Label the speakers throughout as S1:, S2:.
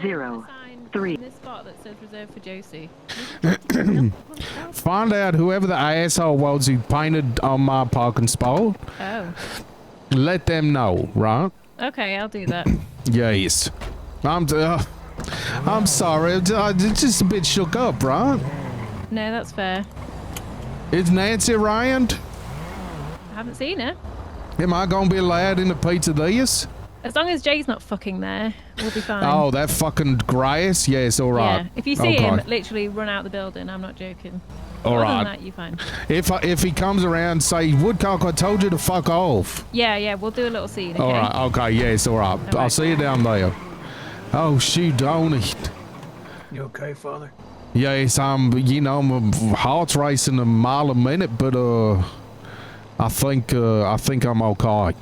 S1: Zero, three.
S2: This spot that says reserved for Josie.
S3: Find out whoever the asshole was who painted um, uh, on my parking spot.
S2: Oh,
S3: Let them know, right?
S2: okay, I'll do that.
S3: Yes. I'm. Uh, I'm sorry. I'm ju- I'm just a bit shook up, right?
S2: No, that's fair.
S3: Is Nancy around?
S2: I haven't seen her.
S3: Am I gonna be allowed in the pizza this?
S2: As long as Jay's not fucking there, we'll be fine.
S3: Oh, that fucking grass. Yes, all right.
S2: Yeah. If you see
S3: okay.
S2: him, literally run out the building. I'm not joking. Other
S3: all
S2: than
S3: right.
S2: that, you fine.
S3: If I, if he comes around, say Woodcock, I told you to fuck off.
S2: Yeah, yeah. We'll do a little scene. Okay.
S3: All right. Okay. Yes. All right. I'll
S2: right.
S3: see you down there. Oh shoot, Donny.
S4: You okay, father?
S3: Yes, I'm. You know, my heart's racing a mile a minute, but uh, I think uh, I think I'm okay.
S4: All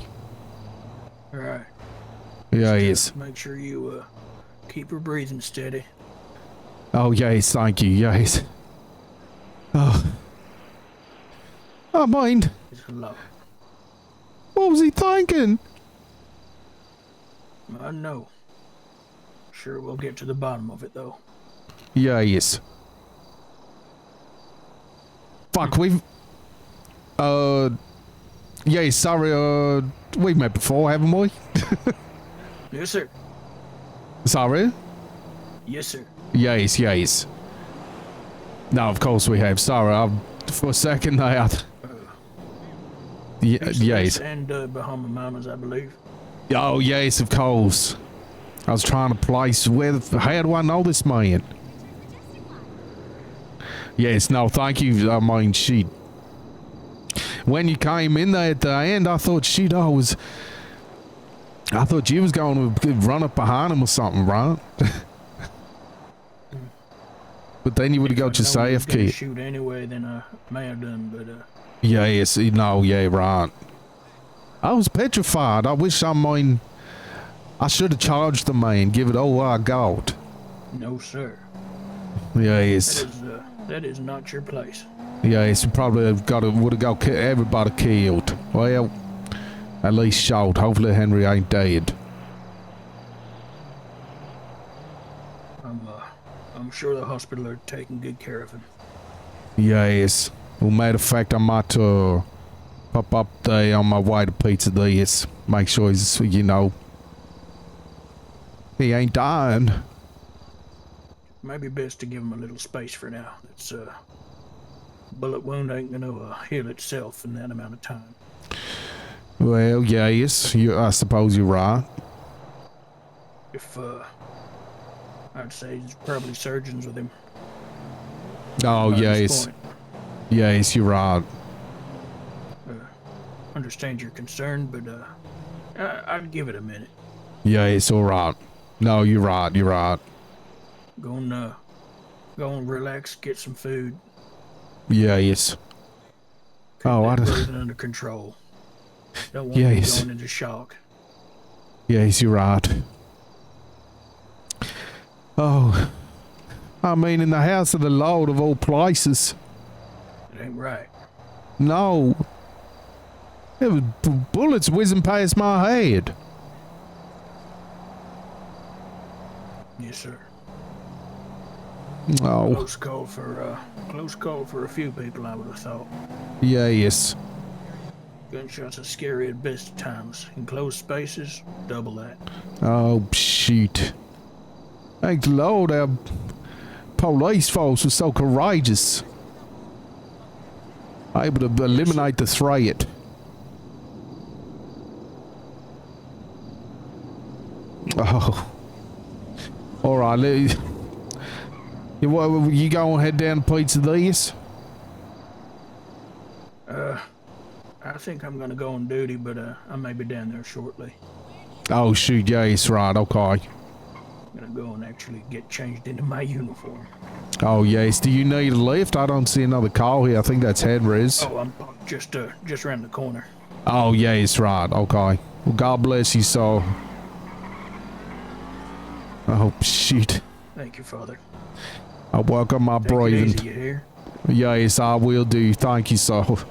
S4: right.
S3: Yes.
S4: Make sure you uh, keep your breathing steady.
S3: Oh yes, thank you. Yes. Oh. I mind.
S4: It's low.
S3: What was he thinking?
S4: I know. Sure, we'll get to the bottom of it though.
S3: Yes. Fuck, we've. Uh. Yeah, sorry, uh. We've met before, haven't we?
S4: Yes, sir.
S3: Sorry?
S4: Yes, sir.
S3: Yes, yes. No, of course we have. Sorry, I'm. For a second, I. I Ye- yes.
S4: And uh, Bahama Mamas, I believe.
S3: Oh, yes, of course. I was trying to place where. the- How do I know this man? Yes, no, thank you. I mean, she. When you came in there at the end, I thought she'd always. I thought you was going to run up behind him or something, right? but then you would have
S4: If I
S3: got
S4: know
S3: your
S4: we was
S3: safe
S4: gonna
S3: key.
S4: Shoot anyway, then I may have done, but uh,
S3: Yes, no, yeah, right. I was petrified. I wish I mean, I should have charged the man, give it all I got.
S4: no, sir. That
S3: Yes,
S4: is uh, that is not your place.
S3: yes, we probably have got would have got ki- everybody killed. Well, at least shot. Hopefully Henry ain't dead.
S4: I'm uh, I'm sure the hospital are taking good care of him.
S3: Yes. Well, matter of fact, I might uh, pop up there on my way to Pizza Diaz. Make sure he's, you know, he ain't dying.
S4: Maybe best to give him a little space for now. It's uh, bullet wound ain't gonna uh, heal itself in that amount of time.
S3: Well, yes, you, I suppose you're right.
S4: If uh, I'd say there's probably surgeons with him.
S3: Oh,
S4: by this
S3: yes.
S4: point.
S3: Yes, you're right.
S4: Uh, Understand your concern, but uh, I- I'd give it a minute.
S3: Yes, all right. No, you're right. You're right.
S4: Go and uh, go and relax, get some food.
S3: Yes.
S4: Keep
S3: Oh, I
S4: that
S3: don't-
S4: breathing under control. Don't want
S3: Yes.
S4: you going into shock.
S3: Yes, you're right. Oh. I mean, in the house of the Lord of all places.
S4: It ain't right.
S3: No. There was b- bullets whizzing past my head.
S4: Yes, sir.
S3: Oh,
S4: Close call for uh, close call for a few people. I would have thought.
S3: yes.
S4: Gunshots are scary at best of times. In closed spaces, double that.
S3: Oh, shoot. Thank the Lord our police force was so courageous. Able to b- eliminate the threat. Oh. Alright, let you, wa- you go and head down to Pizza This?
S4: I think I'm gonna go on duty, but uh, I may be down there shortly.
S3: Oh, shoot, yes, right, okay.
S4: I'm gonna go and actually get changed into my uniform.
S3: Oh, yes, do you need a lift? I don't see another car here. I think that's Henry's.
S4: Oh, I'm parked just uh, just around the corner.
S3: Oh, yeah, it's right. Okay. Well, God bless you, so. Oh, shit.
S4: Thank you, Father.
S3: I woke up my
S4: Take it easy,
S3: breathing.
S4: you hear?
S3: Yes, I will do. Thank you, so.